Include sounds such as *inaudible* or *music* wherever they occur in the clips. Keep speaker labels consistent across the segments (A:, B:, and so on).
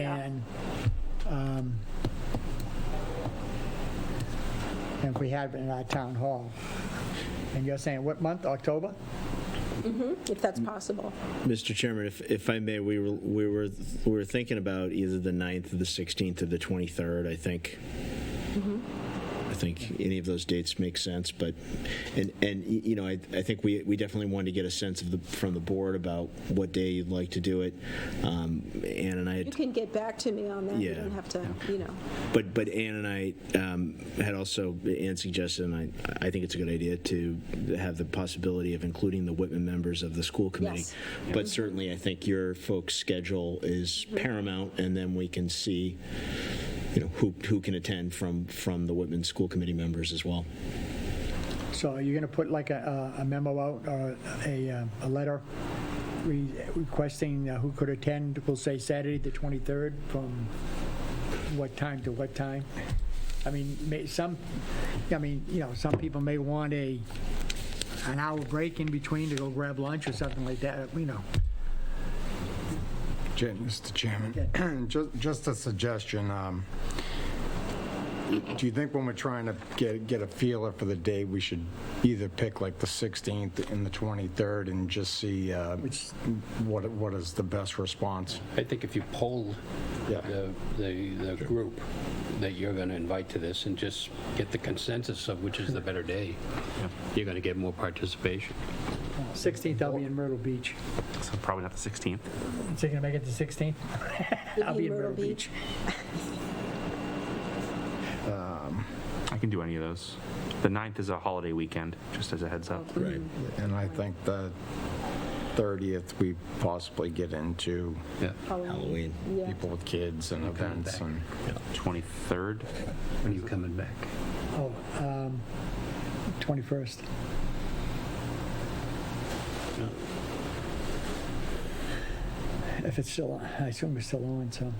A: And, um, and if we had it in our town hall. And you're saying what month, October?
B: if that's possible.
C: Mr. Chairman, if, if I may, we were, we were, we were thinking about either the 9th or the 16th or the 23rd, I think. I think any of those dates make sense, but, and, and, y- you know, I, I think we, we definitely wanted to get a sense of the, from the board about what day you'd like to do it. Um, Ann and I had
B: You can get back to me on that. You
C: Yeah.
B: don't have to, you know.
C: But but Ann and I um, had also Ann suggested, and I I think it's a good idea to have the possibility of including the Whitman members of the school committee.
B: Yes.
C: But certainly, I think your folks' schedule is paramount, and then we can see, you know, who who can attend from from the Whitman school committee members as well.
A: So are you going to put like a a memo out or a, uh, a letter re- requesting uh, who could attend? We'll say Saturday, the 23rd, from what time to what time? I mean, may, some, I mean, you know, some people may want a, an hour break in between to go grab lunch or something like that, you know.
D: Ja- Mr. Chairman, ju- *clears throat* just a suggestion. um, Do you think when we're trying to get, get a feeler for the day, we should either pick like the 16th and the 23rd and just see uh, what, what is the best response?
E: I think if you poll
D: Yeah.
E: the, the, the group that you're going to invite to this and just get the consensus of which is the better day, you're going to get more participation.
A: 16th, I'll be in Myrtle Beach.
F: So probably not the 16th.
A: So you're going to make it the 16th? I'll be in Myrtle Beach.
F: I can do any of those. The 9th is a holiday weekend, just as a heads up.
C: Right.
D: And I think the 30th, we possibly get into
E: Yeah.
C: Halloween.
B: Yeah.
D: people with kids and events and...
F: 23rd.
E: When are you coming back?
A: Oh, um, 21st. If it's still, on- I assume it's still on, so.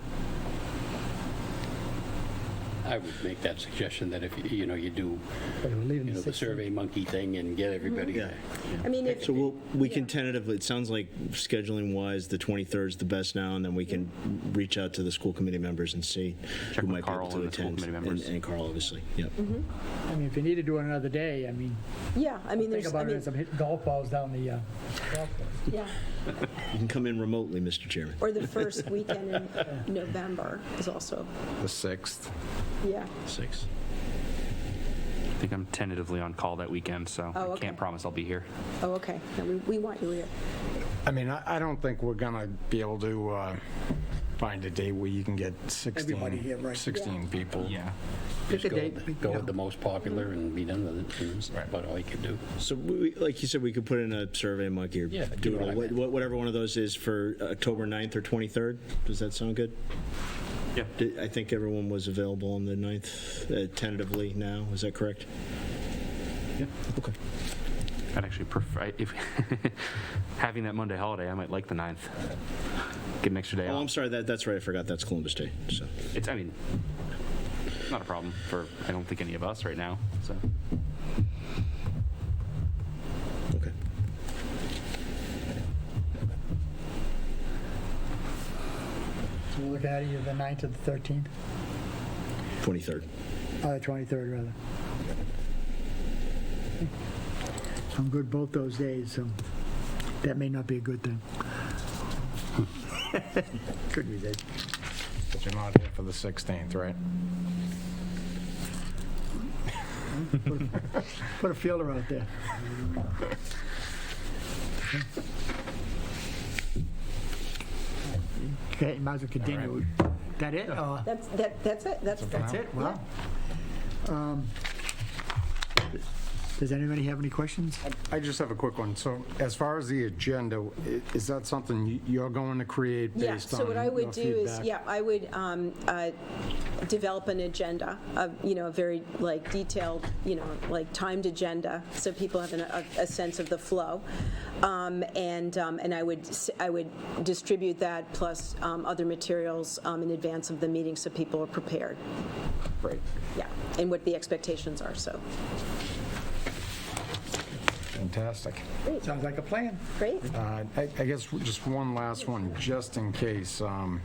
E: I would make that suggestion that if, you- you know, you do,
A: but we're leaving
E: you know, the
A: 16th.
E: survey monkey thing and get everybody
C: Yeah.
E: there.
B: I mean, if,
C: So we'll, we can
B: Yeah.
C: tentatively. It sounds like scheduling wise, the 23rd is the best now, and then we can reach out to the school committee members and see
F: Check
C: who
F: with
C: might
F: Carl
C: be able to
F: and the school
C: attend.
F: committee members.
C: And, and Carl, obviously. Yep.
A: I mean, if you need to do it another day, I mean,
B: yeah, I
A: think
B: mean, there's, I
A: about it
B: mean,
A: as I'm hitting golf balls down the, uh,
B: yeah.
C: You can come in remotely, Mr. Chairman.
B: Or the
A: *laughs*
B: first weekend in November is also,
D: The 6th.
B: yeah.
C: Six.
F: I think I'm tentatively on call that weekend, so
B: Oh,
F: I
B: okay.
F: can't promise I'll be here.
B: Oh, okay. No, we, we want you here.
D: I mean, I, I don't think we're gonna be able to uh, find a day where you can get 16,
A: Everybody here, right.
D: 16 people.
A: pick a
E: Just go
A: date.
E: with- Go
A: you know.
E: with the most popular and be done with it. That's about all you could do.
C: So, we, like you said, we could put in a survey monkey or
E: Yeah, do
C: doodle,
E: what I
C: wha-
E: meant.
C: wha- whatever one of those is for October 9th or 23rd. Does that sound good?
F: Yeah.
C: Did- I think everyone was available on the 9th uh, tentatively now. Is that correct?
F: Yeah.
C: Okay.
F: I'd actually prefer, I- if, *laughs* having that Monday holiday, I might like the 9th. Get an extra day
C: Oh, I'm
F: off.
C: sorry. That, that's right. I forgot. That's Columbus Day. So,
F: It's, I mean, not a problem for, I don't think any of us right now, so.
C: okay.
A: So we'll look at either the 9th or the 13th,
C: 23rd.
A: or the 23rd, Uh, rather. I'm good both those days, so that may not be a good thing. *laughs* Could be, Dave.
D: But you're not here for the 16th, right?
A: Put a fielder out there. Okay, might as well continue. That it? Uh,
B: That's, that, that's it. That's,
A: That's it? Wow. Um, Does anybody have any questions?
D: I just have a quick one. So as far as the agenda, i- is that something you- you're going to create
B: Yeah,
D: based on
B: so what I would
D: your
B: do is,
D: feedback?
B: yeah, I would um, uh, develop an agenda, of, you know, a very like detailed, you know, like timed agenda, so people have an- a a sense of the flow. Um, And, um, and I would, s- I would distribute that plus um, other materials um, in advance of the meeting, so people are prepared.
D: Great.
B: Yeah, and what the expectations are, so.
D: Fantastic.
A: Sounds like a plan.
B: Great?
D: Uh, I I guess just one last one, just in case. um,